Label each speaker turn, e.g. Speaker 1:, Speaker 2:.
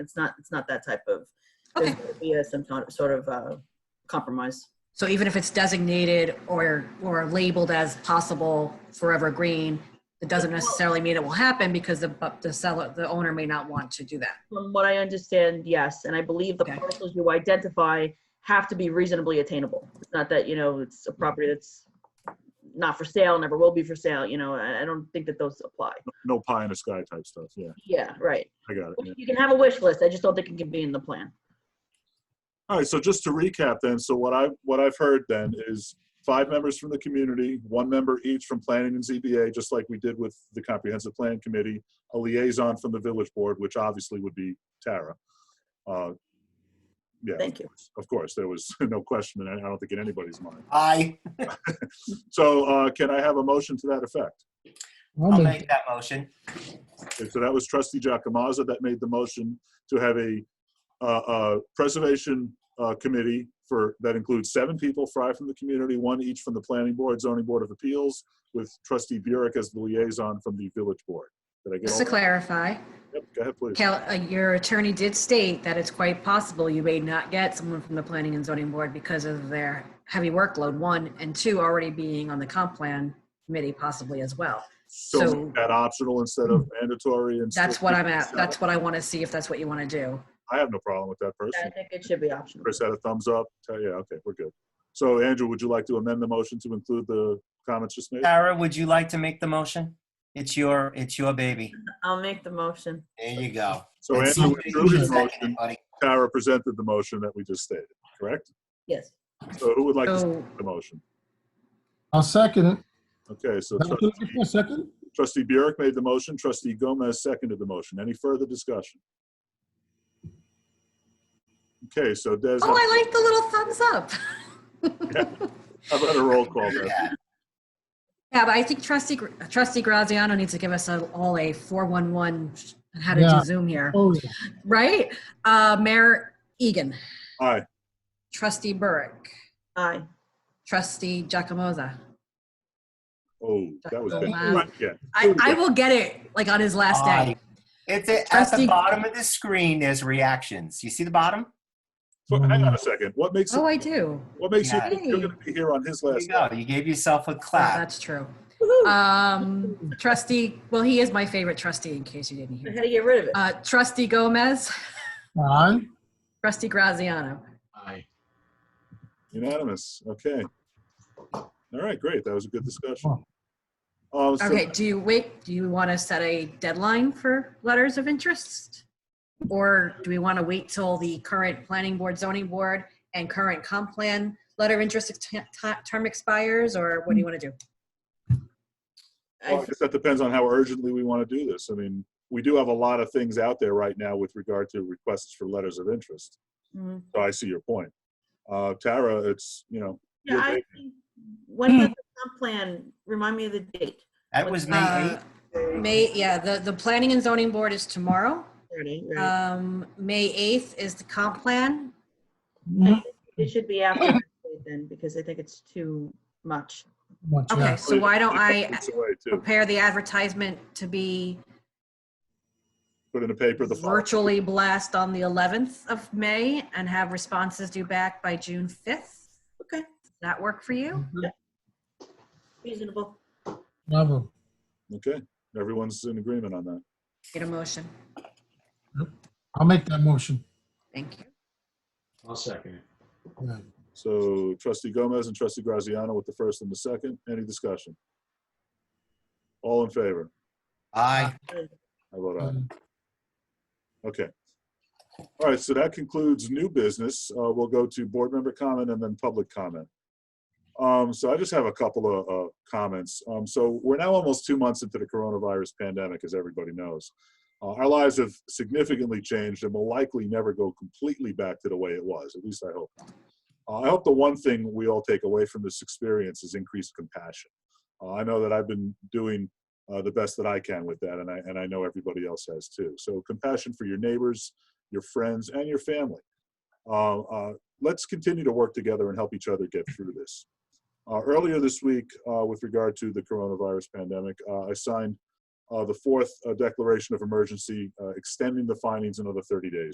Speaker 1: It's not, it's not that type of,
Speaker 2: Okay.
Speaker 1: there's gonna be a- some sort of- sort of uh, compromise.
Speaker 2: So even if it's designated or, or labeled as possible forever green, it doesn't necessarily mean it will happen because the, but the seller, the owner may not want to do that.
Speaker 1: From what I understand, yes, and I believe the
Speaker 2: Okay.
Speaker 1: parcels you identify have to be reasonably attainable. It's not that, you know, it's a property that's not for sale, never will be for sale, you know, I I don't think that those apply.
Speaker 3: No pie in the sky type stuff. Yeah,
Speaker 1: Yeah, right.
Speaker 3: I got it. yeah.
Speaker 1: You can have a wish list, I just don't think it can be in the plan.
Speaker 3: All right, so just to recap then, so what I, what I've heard then is five members from the community, one member each from planning and ZBA, just like we did with the comprehensive plan committee, a liaison from the village board, which obviously would be Tara. Uh, Yeah,
Speaker 1: Thank you.
Speaker 3: of course, there was no question, and I don't think in anybody's mind.
Speaker 4: Aye.
Speaker 3: So uh, can I have a motion to that effect?
Speaker 4: I'll make that motion.
Speaker 3: Okay, So that was trustee Jacomaza that made the motion to have a uh, uh, preservation uh, committee for, that includes seven people, five from the community, one each from the planning board, zoning board of appeals, with trustee Burek as the liaison from the village board. Did I get all
Speaker 2: Just to
Speaker 3: that?
Speaker 2: clarify,
Speaker 3: Yep, Go ahead, please.
Speaker 2: Cal, uh, your attorney did state that it's quite possible you may not get someone from the planning and zoning board because of their heavy workload, one, and two, already being on the comp plan committee possibly as well.
Speaker 3: So
Speaker 2: So
Speaker 3: make that optional instead of mandatory and.
Speaker 2: that's
Speaker 3: still
Speaker 2: what
Speaker 3: keep
Speaker 2: I'm
Speaker 3: it
Speaker 2: at.
Speaker 3: seven?
Speaker 2: That's what I want to see if that's what you want to do.
Speaker 3: I have no problem with that
Speaker 1: I
Speaker 3: person.
Speaker 1: think it should be optional.
Speaker 3: Chris uh, had a thumbs up. Tell- Yeah, okay, we're good. So Andrew, would you like to amend the motion to include the comments just made?
Speaker 4: Tara, would you like to make the motion? It's your, it's your baby.
Speaker 1: I'll make the motion.
Speaker 4: There you go.
Speaker 3: So
Speaker 4: And
Speaker 3: Andrew
Speaker 4: somebody
Speaker 3: withdrew his
Speaker 4: seconded,
Speaker 3: motion.
Speaker 4: buddy.
Speaker 3: Tara presented the motion that we just stated, correct?
Speaker 1: Yes.
Speaker 3: So who would like to second
Speaker 2: So
Speaker 3: the motion?
Speaker 5: I'll second it.
Speaker 3: Okay, so
Speaker 5: Now, can I
Speaker 3: trustee-
Speaker 5: get a second?
Speaker 3: trustee Burek made the motion, trustee Gomez seconded the motion. Any further discussion? Okay, so Des,
Speaker 2: Oh, I like the little thumbs up.
Speaker 3: how about a roll call there?
Speaker 4: Yeah.
Speaker 2: Yeah, but I think trustee, Gr- trustee Graziano needs to give us a- all a 411 sh- on how to
Speaker 5: Yeah.
Speaker 2: do Zoom here,
Speaker 5: Oh, yeah.
Speaker 2: right? Uh, Mayor Egan,
Speaker 3: Aye,
Speaker 2: trustee Burke,
Speaker 1: Aye.
Speaker 2: trustee Giacomoza.
Speaker 3: oh, that was big.
Speaker 2: Wow.
Speaker 3: Yeah,
Speaker 2: I, I will get it like on his last day.
Speaker 4: Aye. It's at- at
Speaker 2: Trustee-
Speaker 4: the bottom of the screen, there's reactions. You see the bottom?
Speaker 3: so hang on a second. What makes,
Speaker 2: Oh, I do.
Speaker 3: what makes you
Speaker 4: Yeah.
Speaker 3: think you're gonna be here on his
Speaker 4: There
Speaker 3: last?
Speaker 4: you go. You gave yourself a
Speaker 2: Yeah,
Speaker 4: clap.
Speaker 2: That's true. Um, trustee, well, he is my favorite trustee in case you
Speaker 1: I
Speaker 2: didn't hear.
Speaker 1: had to get rid of it.
Speaker 2: Uh, trustee Gomez,
Speaker 5: Aye.
Speaker 2: trustee Graziano.
Speaker 3: Unanimous, okay. All right, great, that was a good discussion. Uh, so-
Speaker 2: Okay, do you wait, do you want to set a deadline for letters of interest? Or do we want to wait till the current planning board, zoning board, and current comp plan letter of interest t- t- term expires, or what do you want to do?
Speaker 3: Well, I
Speaker 1: I-
Speaker 3: guess that depends on how urgently we want to do this. I mean, we do have a lot of things out there right now with regard to requests for letters of interest.
Speaker 1: Mhm.
Speaker 3: So I see your point. Uh, Tara, it's, you know,
Speaker 1: Yeah,
Speaker 3: You're
Speaker 1: I
Speaker 3: big.
Speaker 1: think, when was the comp plan, remind me of the date.
Speaker 4: That was May
Speaker 2: Uh,
Speaker 4: 8th.
Speaker 2: May, yeah, the, the planning and zoning board is tomorrow.
Speaker 1: Thirty, right.
Speaker 2: Um, May 8th is the comp plan.
Speaker 1: It should be after that date then, because I think it's too much.
Speaker 5: Much, yeah.
Speaker 2: Okay, so why don't I
Speaker 3: it's a way to
Speaker 2: prepare the advertisement to be
Speaker 3: put in the paper the following.
Speaker 2: virtually blast on the 11th of May and have responses due back by June 5th?
Speaker 1: Okay.
Speaker 2: Does that work for you?
Speaker 1: Reasonable.
Speaker 5: Bravo.
Speaker 3: Okay, everyone's in agreement on that.
Speaker 2: Get a motion.
Speaker 5: I'll make that motion.
Speaker 2: Thank you.
Speaker 6: I'll second it.
Speaker 5: Yeah.
Speaker 3: So trustee Gomez and trustee Graziano with the first and the second. Any discussion? All in favor?
Speaker 4: Aye.
Speaker 3: I vote aye. Okay. All right, so that concludes new business. Uh, We'll go to board member comment and then public comment. Um, So I just have a couple of uh, comments. Um, So we're now almost two months into the coronavirus pandemic, as everybody knows. Uh, Our lives have significantly changed and will likely never go completely back to the way it was, at least I hope. not. Uh, I hope the one thing we all take away from this experience is increased compassion. Uh, I know that I've been doing uh, the best that I can with that, and I and I know everybody else has too. So compassion for your neighbors, your friends, and your family. Uh, uh, let's continue to work together and help each other get through this. Uh, earlier this week, uh, with regard to the coronavirus pandemic, uh, I signed uh, the fourth uh, declaration of emergency, uh, extending the findings another 30 days.